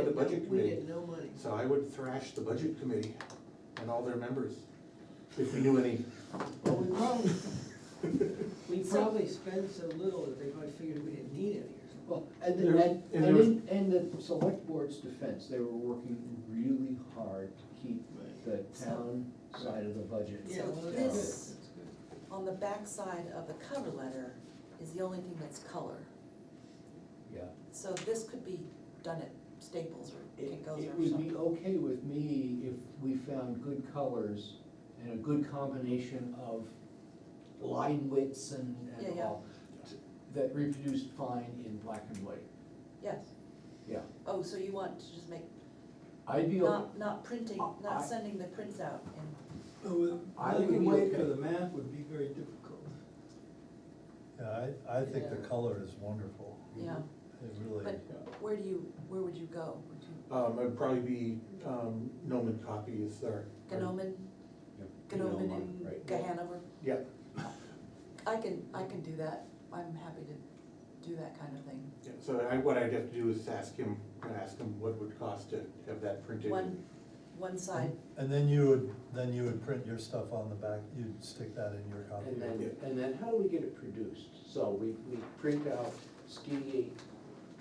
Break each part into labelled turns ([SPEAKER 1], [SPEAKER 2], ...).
[SPEAKER 1] budget
[SPEAKER 2] We
[SPEAKER 1] committee.
[SPEAKER 2] get no money.
[SPEAKER 1] So I would thrash the budget committee and all their members, if we knew any.
[SPEAKER 2] Well, we probably, we probably spend so little that they probably figured we didn't need any or something.
[SPEAKER 3] Well, and,
[SPEAKER 1] There-
[SPEAKER 3] and,
[SPEAKER 1] and
[SPEAKER 3] and
[SPEAKER 1] there was-
[SPEAKER 3] in, and the select board's defense, they were working really hard to keep the town side of the budget.
[SPEAKER 2] Yeah,
[SPEAKER 4] So
[SPEAKER 2] well, that's
[SPEAKER 4] this,
[SPEAKER 2] good, that's good.
[SPEAKER 4] on the backside of the cover letter, is the only thing that's color.
[SPEAKER 3] Yeah.
[SPEAKER 4] So this could be done at Staples or
[SPEAKER 3] It,
[SPEAKER 4] Kinko's
[SPEAKER 3] it
[SPEAKER 4] or
[SPEAKER 3] would be
[SPEAKER 4] something.
[SPEAKER 3] okay with me if we found good colors and a good combination of line widths and,
[SPEAKER 4] Yeah,
[SPEAKER 3] and
[SPEAKER 4] yeah.
[SPEAKER 3] all. t- That reproduced fine in black and white,
[SPEAKER 4] Yes,
[SPEAKER 3] yeah.
[SPEAKER 4] oh, so you want to just make,
[SPEAKER 3] I'd be, o-
[SPEAKER 4] not, not printing,
[SPEAKER 3] I-
[SPEAKER 4] not sending the prints out and.
[SPEAKER 5] Oh,
[SPEAKER 3] I would be okay.
[SPEAKER 5] map would be very difficult.
[SPEAKER 6] Yeah, I, I think the
[SPEAKER 2] Yeah.
[SPEAKER 6] color is wonderful.
[SPEAKER 4] Yeah.
[SPEAKER 3] Mm-hmm.
[SPEAKER 6] It really,
[SPEAKER 4] But where do you, where would you go? Would you,
[SPEAKER 1] Um, it'd probably be, um, Noman Copy is their.
[SPEAKER 4] Gnomon, Gnomon and Gahanover?
[SPEAKER 1] Yeah,
[SPEAKER 4] I can, I can do that, I'm happy to do that kind of thing.
[SPEAKER 1] yeah, so I, what I'd have to do is ask him, ask him what it would cost to have that printed.
[SPEAKER 4] One, one side,
[SPEAKER 6] and then you would, then you would print your stuff on the back, you'd stick that in your copy.
[SPEAKER 3] And then, and then how do we get it produced? So we, we print out skinny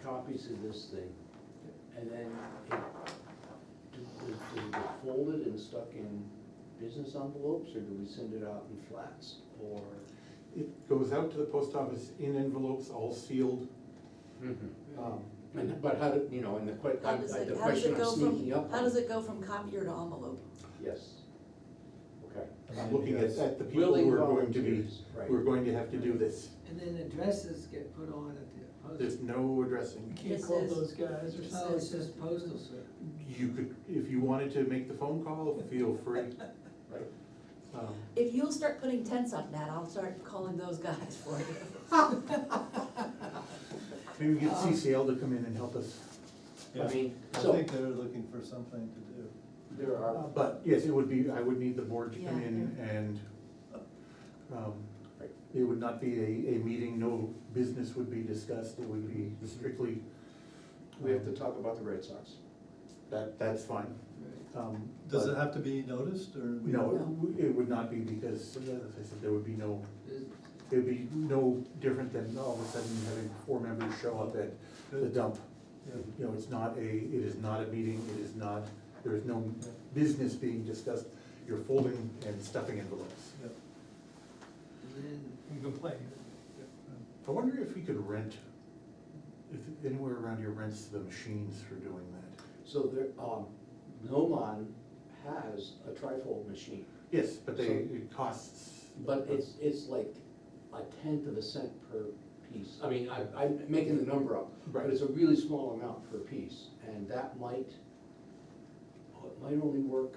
[SPEAKER 3] copies of this thing, and then it, do- does does it get folded and stuck in business envelopes, or do we send it out in flats, or?
[SPEAKER 1] It goes out to the post office in envelopes, all sealed.
[SPEAKER 3] Mm-hmm.
[SPEAKER 1] Um,
[SPEAKER 3] And, but how, do you know, and the que,
[SPEAKER 4] how
[SPEAKER 3] I'm-
[SPEAKER 4] does
[SPEAKER 3] the
[SPEAKER 4] it, how does
[SPEAKER 3] question
[SPEAKER 4] it
[SPEAKER 3] I'm
[SPEAKER 4] go from,
[SPEAKER 3] sneaking up
[SPEAKER 4] how does
[SPEAKER 3] on,
[SPEAKER 4] it go from copier to envelope?
[SPEAKER 3] yes, okay.
[SPEAKER 6] And then
[SPEAKER 1] I'm
[SPEAKER 6] you
[SPEAKER 1] looking at,
[SPEAKER 6] guys-
[SPEAKER 1] at the people
[SPEAKER 3] Willing
[SPEAKER 1] who are going to be,
[SPEAKER 3] volunteers,
[SPEAKER 1] who are
[SPEAKER 3] Right,
[SPEAKER 1] going to have to do this.
[SPEAKER 2] And then addresses get put on at the
[SPEAKER 1] There's
[SPEAKER 2] post.
[SPEAKER 1] no addressing.
[SPEAKER 5] Can't
[SPEAKER 4] This
[SPEAKER 5] call
[SPEAKER 4] is-
[SPEAKER 5] those guys or
[SPEAKER 4] this
[SPEAKER 2] No,
[SPEAKER 5] something.
[SPEAKER 2] it's just postal service.
[SPEAKER 1] You could, if you wanted to make the phone call, feel free.
[SPEAKER 3] right.
[SPEAKER 1] Um,
[SPEAKER 4] If you'll start putting tents up, Nat, I'll start calling those guys for you.
[SPEAKER 1] Maybe get CCL to come in and help us.
[SPEAKER 3] I mean,
[SPEAKER 6] I
[SPEAKER 3] so-
[SPEAKER 6] think they're looking for something to do.
[SPEAKER 3] There
[SPEAKER 1] Uh,
[SPEAKER 3] are,
[SPEAKER 1] But yes, it would be, I would need the board to come
[SPEAKER 4] Yeah.
[SPEAKER 1] in and, um, it would not be a, a meeting, no business would be discussed, it would be strictly,
[SPEAKER 3] we have to talk about the Red Sox.
[SPEAKER 1] that, that's fine. Um,
[SPEAKER 6] Does
[SPEAKER 1] but-
[SPEAKER 6] it have to be noticed, or? we-
[SPEAKER 1] No, it w- it would not be because, as I said, there would be no,
[SPEAKER 2] Business.
[SPEAKER 1] it'd be no different than all of a sudden having four members show up at the
[SPEAKER 6] Good.
[SPEAKER 1] dump.
[SPEAKER 6] Yeah.
[SPEAKER 1] You know, it's not a, it is not a meeting, it is not, there is no business being discussed, you're folding and stuffing envelopes.
[SPEAKER 6] Yeah.
[SPEAKER 2] And then,
[SPEAKER 5] You can play.
[SPEAKER 1] I wonder if we could rent, if anywhere around here rents the machines for doing that.
[SPEAKER 3] So there, um, Nomon has a trifold machine,
[SPEAKER 1] Yes, but they,
[SPEAKER 3] So-
[SPEAKER 1] it costs.
[SPEAKER 3] but it's, it's like a tenth of a cent per piece. I mean, I, I'm making the number up, but
[SPEAKER 1] Right.
[SPEAKER 3] it's a really small amount per piece, and that might, oh, it might only work,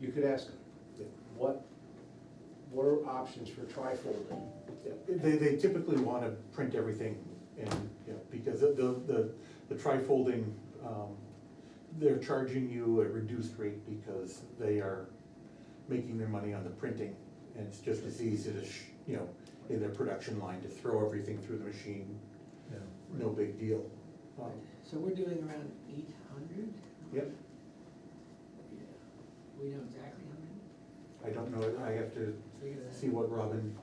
[SPEAKER 3] you could ask them,
[SPEAKER 1] Yeah.
[SPEAKER 3] what, what are options for trifolding?
[SPEAKER 1] Yeah, They, they typically wanna print everything and, you know, because the, the, the trifolding, um, they're charging you a reduced rate because they are making their money on the printing. And it's just as easy to, sh- you know, in their production line to throw everything through the machine,
[SPEAKER 6] Yeah.
[SPEAKER 1] no big deal. Um,
[SPEAKER 2] so we're doing around eight hundred?
[SPEAKER 1] Yep,
[SPEAKER 2] We know exactly how
[SPEAKER 1] I don't know, I have to
[SPEAKER 2] many? Figure that
[SPEAKER 1] see what Robin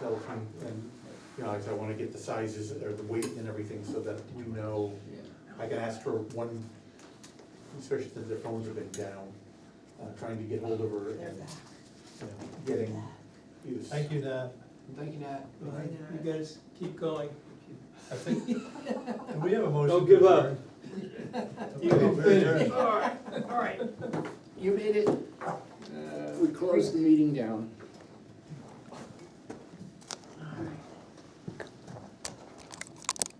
[SPEAKER 1] tells me, and, you know, 'cause I wanna get the sizes or the weight and everything so that we know.
[SPEAKER 2] out. Yeah.
[SPEAKER 1] I can ask for one, especially since their phones have been down, uh, trying to get hold of her
[SPEAKER 4] They're
[SPEAKER 1] and
[SPEAKER 4] back.
[SPEAKER 1] you know, getting use.
[SPEAKER 6] Thank you, Nat.
[SPEAKER 3] Thank you, Nat.
[SPEAKER 2] Right.
[SPEAKER 5] You guys keep going.
[SPEAKER 6] I think, and we have a motion.
[SPEAKER 5] give
[SPEAKER 6] to
[SPEAKER 5] up.
[SPEAKER 6] adjourn.
[SPEAKER 5] You
[SPEAKER 6] Okay,
[SPEAKER 5] can
[SPEAKER 6] we're
[SPEAKER 5] finish.
[SPEAKER 6] adjourned.
[SPEAKER 3] You made it. We closed the meeting down.